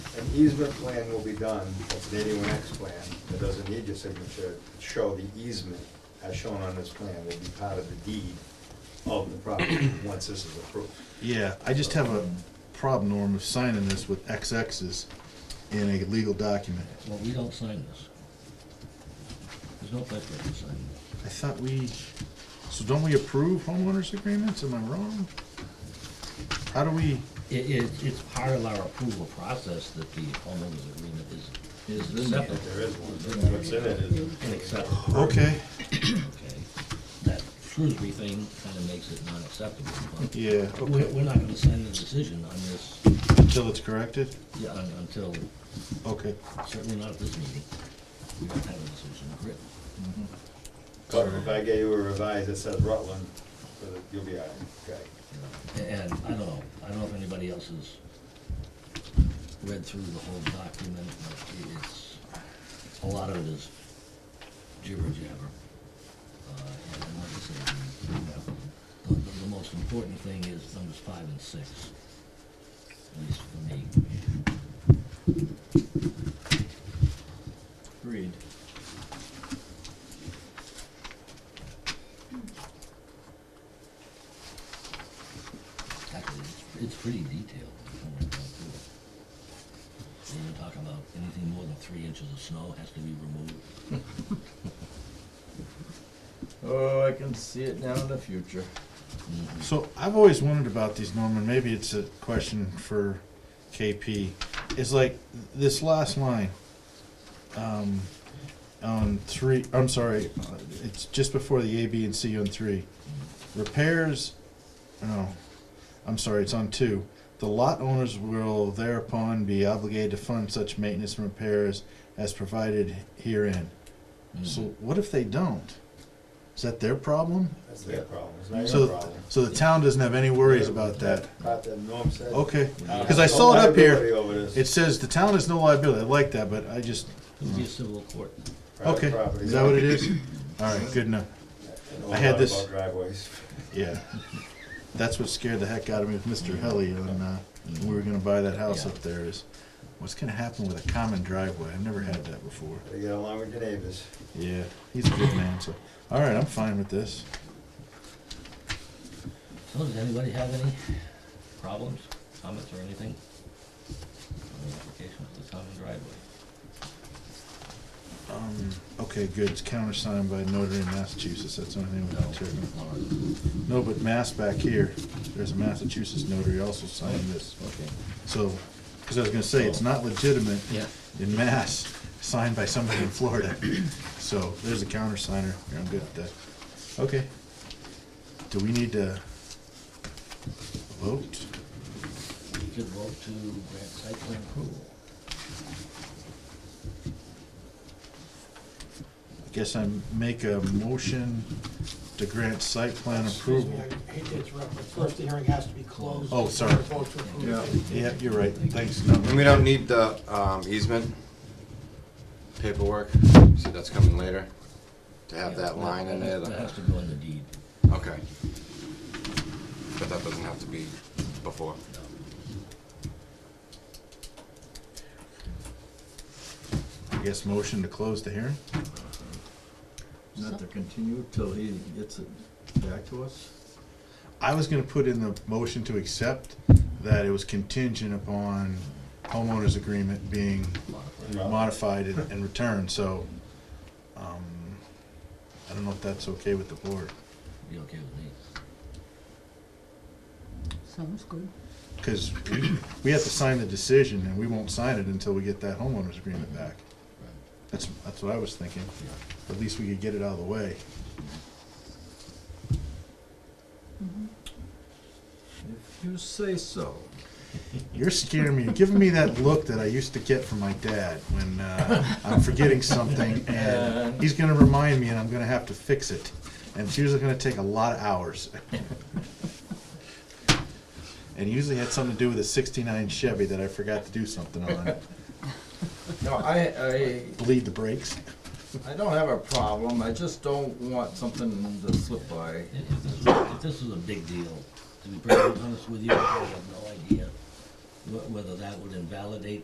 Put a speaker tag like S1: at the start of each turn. S1: an easement plan will be done, that's an eighty-one X plan, that doesn't need your signature, to show the easement, as shown on this plan, will be part of the deed of the property, once this is approved.
S2: Yeah, I just have a problem, Norm, of signing this with XX's in a legal document.
S3: Well, we don't sign this. There's no place for us to sign it.
S2: I thought we, so don't we approve homeowners agreements? Am I wrong? How do we,
S3: It, it's, it's part of our approval process that the homeowners agreement is, is accepted.
S1: If there is one, what's in it is,
S3: And accepted,
S2: okay,
S3: okay? That Shrewsbury thing kinda makes it not acceptable, but
S2: yeah,
S3: we're,
S2: okay,
S3: we're not gonna sign a decision on this,
S2: until it's corrected?
S3: yeah, un- until,
S2: Okay.
S3: certainly not at this meeting. We don't have a decision written.
S1: but if I gave you a revise that says Rutland, uh, you'll be all right, okay?
S3: you know. And I don't know, I don't know if anybody else has read through the whole document, but it's, a lot of it is jibber jabber. Uh, And and like I said, the, the- the most important thing is numbers five and six, at least for me.
S4: Read.
S3: Actually, it's, it's pretty detailed. when you come right down to it. They even talk about anything more than three inches of snow has to be removed.
S4: Oh, I can see it now in the future.
S3: Mhm.
S2: So I've always wondered about these, Norman. Maybe it's a question for KP. It's like this last line um, on three. I'm sorry, uh, it's just before the A, B, and C on three. Repairs. No, I'm sorry. It's on two. The lot owners will thereupon be obligated to fund such maintenance and repairs as provided herein.
S3: Mhm.
S2: So what if they don't? Is that their problem?
S1: That's their problem, it's not your
S2: So,
S1: problem.
S2: so the town doesn't have any worries about that.
S1: Part that Norm said.
S2: Okay,
S3: Yeah.
S2: because I saw it up here.
S1: Liability over this
S2: It says the town has no liability. I like that, but I just,
S3: It'll Mm-hmm. be a civil court.
S1: private
S2: okay.
S1: property.
S2: Is that what it is? All right, good enough.
S1: And all
S2: I had
S1: about
S2: this-
S1: Driveways.
S2: Yeah. That's what scared the heck out of me with Mr. Helly when, uh, when we were gonna buy that house up there is, what's gonna happen with a common driveway? I've never had that before.
S1: Gotta get along with your neighbors.
S2: Yeah, he's a good man, so, all right, I'm fine with this.
S3: So does anybody have any problems, comments or anything? On the application of the common driveway?
S2: Um, okay, good. It's countersigned by Notre Dame, Massachusetts. That's the only thing we
S3: No.
S2: can tear down.
S3: All right.
S2: No, but Mass back here, there's a Massachusetts notary also signed this.
S3: Okay.
S2: So, because I was gonna say, it's not legitimate
S3: Yeah.
S2: in Mass, signed by somebody in Florida. So there's a countersigner. Here, I'm good with that. Okay. Do we need to vote?
S3: We could vote to grant site plan approval.
S2: I guess I make a motion to grant site plan approval.
S5: Excuse me, I hate to interrupt, but first the hearing has to be closed.
S2: Oh, sorry.
S5: before vote to approve.
S6: Yeah,
S2: Yeah, you're right. Thanks.
S6: and we don't need the um, easement paperwork, see, that's coming later, to have that
S3: Yeah,
S6: line in there.
S3: That has
S6: the-
S3: to go in the deed.
S6: Okay. But that doesn't have to be before.
S2: I guess motion to close the hearing?
S4: Not to continue till he gets it back to us?
S2: I was gonna put in the motion to accept that it was contingent upon homeowners agreement being Mm-hmm. modified and, and returned, so, um, I don't know if that's okay with the board,
S3: Be okay with me?
S7: Sounds good.
S2: cause we, we have to sign the decision and we won't sign it until we get that homeowners agreement back.
S3: Right.
S2: That's, that's what I was thinking,
S3: Yeah.
S2: at least we could get it out of the way.
S7: Mm-hmm.
S4: If you say so.
S2: You're scaring me. You're giving me that look that I used to get from my dad when uh, I'm forgetting something, and he's going to remind me, and I'm going to have to fix it. And it's usually going to take a lot of hours. and it usually had something to do with a '69 Chevy that I forgot to do something on.
S4: No, I,
S2: Bleed the brakes.
S4: I, I don't have a problem, I just don't want something to slip by.
S3: If if this, was- if this was a big deal, to be perfectly honest with you, I have no idea wh- whether that would invalidate